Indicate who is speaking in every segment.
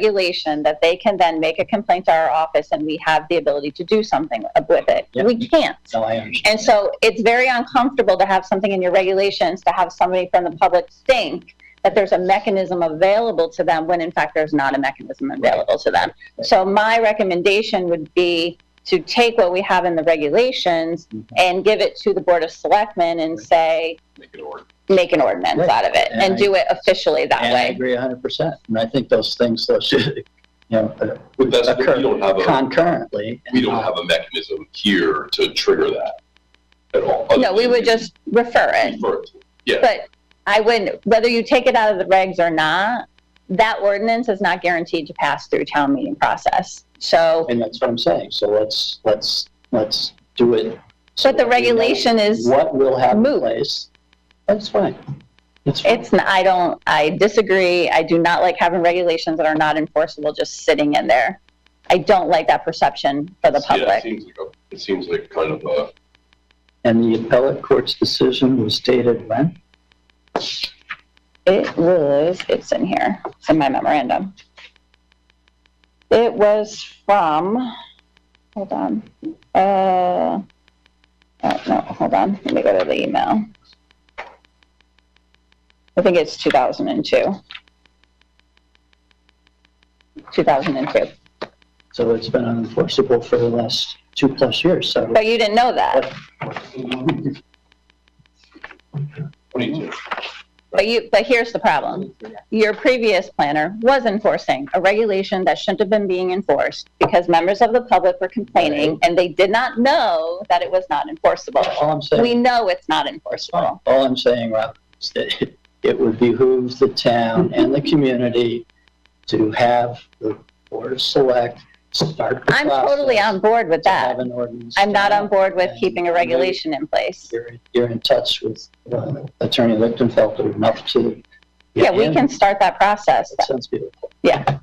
Speaker 1: regulation that they can then make a complaint to our office and we have the ability to do something with it.
Speaker 2: Yeah.
Speaker 1: We can't.
Speaker 2: No, I understand.
Speaker 1: And so it's very uncomfortable to have something in your regulations to have somebody from the public think that there's a mechanism available to them when in fact there's not a mechanism available to them. So my recommendation would be to take what we have in the regulations
Speaker 2: Mhm.
Speaker 1: and give it to the Board of Selectmen and say,
Speaker 3: Make it order.
Speaker 1: make an ordinance
Speaker 2: Right.
Speaker 1: out of it
Speaker 2: And
Speaker 1: and
Speaker 2: I-
Speaker 1: do it officially that
Speaker 2: And I
Speaker 1: way.
Speaker 2: agree hundred percent. And I think those things, those should, you know, uh,
Speaker 3: But that's, we don't have a,
Speaker 2: concurrently.
Speaker 3: we don't have a mechanism here to trigger that at all.
Speaker 1: No, we would just refer it.
Speaker 3: Refer it. Yeah.
Speaker 1: But I wouldn't, whether you take it out of the regs or not, that ordinance is not guaranteed to pass through town meeting process. So,
Speaker 2: And that's what I'm saying. So let's, let's, let's do it. so
Speaker 1: but the
Speaker 2: that we know
Speaker 1: regulation is,
Speaker 2: What will have in
Speaker 1: moot.
Speaker 2: place, that's fine. That's fine.
Speaker 1: it's, n- I don't, I disagree. I do not like having regulations that are not enforceable just sitting in there. I don't like that perception for the
Speaker 3: Yeah, it
Speaker 1: public.
Speaker 3: seems like, a- it seems like kind of a,
Speaker 2: And the appellate court's decision was dated when?
Speaker 1: It was, it's in here, it's in my memorandum. It was from, hold on, uh, oh, no, hold on, let me go to the email. I think it's 2002. 2002,
Speaker 2: So it's been unenforceable for the last two plus years, so.
Speaker 1: but you didn't know that,
Speaker 3: what do you do?
Speaker 1: but you, but here's the problem. Your previous planner was enforcing a regulation that shouldn't have been being enforced because members of the public were complaining and they did not know that it was not enforceable.
Speaker 2: All I'm saying.
Speaker 1: We know it's not enforceable.
Speaker 2: All I'm saying, Rob, is that it would behoove the town and the community to have the Board of Select start the
Speaker 1: I'm totally on
Speaker 2: process
Speaker 1: board with
Speaker 2: to have
Speaker 1: that.
Speaker 2: an ordinance.
Speaker 1: I'm not on board with
Speaker 2: And-
Speaker 1: keeping a regulation in place.
Speaker 2: You're, you're in touch with uh, Attorney Lichtenfelder enough to.
Speaker 1: Yeah, we
Speaker 2: And
Speaker 1: can start that process.
Speaker 2: That sounds beautiful.
Speaker 4: I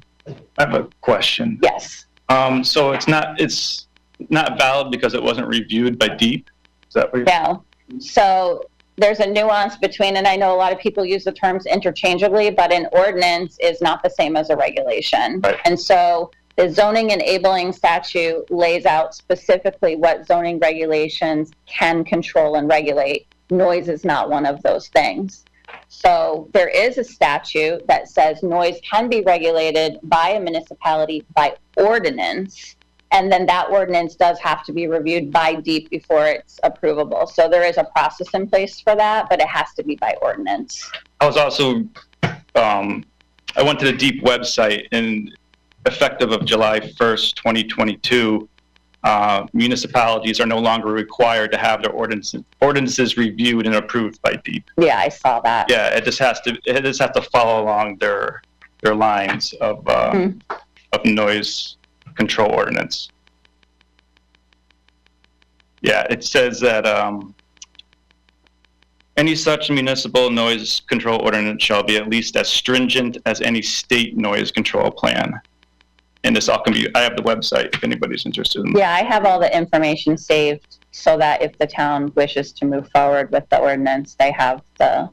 Speaker 4: have a question.
Speaker 1: Yes,
Speaker 4: Um, so it's not, it's not valid because it wasn't reviewed by DEEP? Is that what you're?
Speaker 1: no. So there's a nuance between, and I know a lot of people use the terms interchangeably, but an ordinance is not the same as a regulation.
Speaker 4: Right.
Speaker 1: And so the zoning enabling statute lays out specifically what zoning regulations can control and regulate. Noise is not one of those things. So there is a statute that says noise can be regulated by a municipality by ordinance. And then that ordinance does have to be reviewed by DEEP before it's approvable. So there is a process in place for that, but it has to be by ordinance.
Speaker 4: I was also, um, I went to the DEEP website and effective of July 1st, 2022, uh, municipalities are no longer required to have their ordinances, ordinances reviewed and approved by DEEP.
Speaker 1: Yeah, I saw that.
Speaker 4: Yeah, it just has to, it just has to follow along their, their lines of, uh,
Speaker 1: Hmm.
Speaker 4: of noise control ordinance. Yeah, it says that, um, any such municipal noise control ordinance shall be at least as stringent as any state noise control plan. And this all can be, I have the website if anybody's interested in.
Speaker 1: Yeah, I have all the information saved so that if the town wishes to move forward with the ordinance, they have the,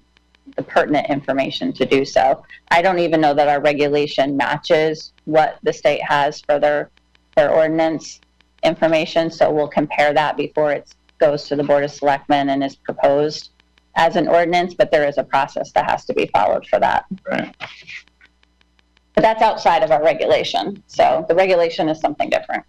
Speaker 1: the pertinent information to do so. I don't even know that our regulation matches what the state has for their, their ordinance information, so we'll compare that before it goes to the Board of Selectmen and is proposed as an ordinance, but there is a process that has to be followed for that.
Speaker 4: Right.
Speaker 1: But that's outside of our regulation, so the regulation is something different.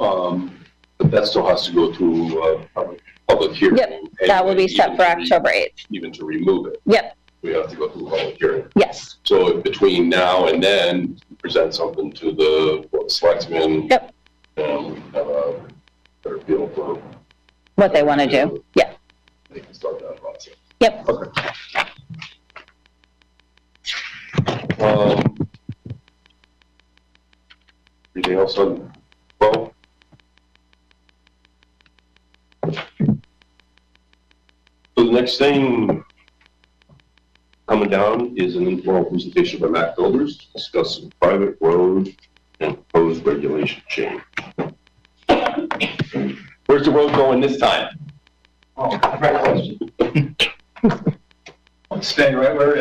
Speaker 3: Um, but that still has to go through, uh, public- public hearing.
Speaker 1: Yep, That will be
Speaker 3: anyway,
Speaker 1: set
Speaker 3: even
Speaker 1: for
Speaker 3: to re-
Speaker 1: October 8th.
Speaker 3: Even to remove it,
Speaker 1: Yep,
Speaker 3: we have to go through a public hearing.
Speaker 1: yes,
Speaker 3: So between now and then, present something to the Board of selectmen.
Speaker 1: Yep.
Speaker 3: And we can have a better feel for,
Speaker 1: what they want to do. Yeah,
Speaker 3: they can start that process.
Speaker 1: yep.
Speaker 3: Um, Anything else on, well? So the next thing coming down is an informal presentation by Matt Builders discussing private road and proposed regulation change. Where's the road going this time?
Speaker 5: Oh, great question.
Speaker 3: staying right where it is.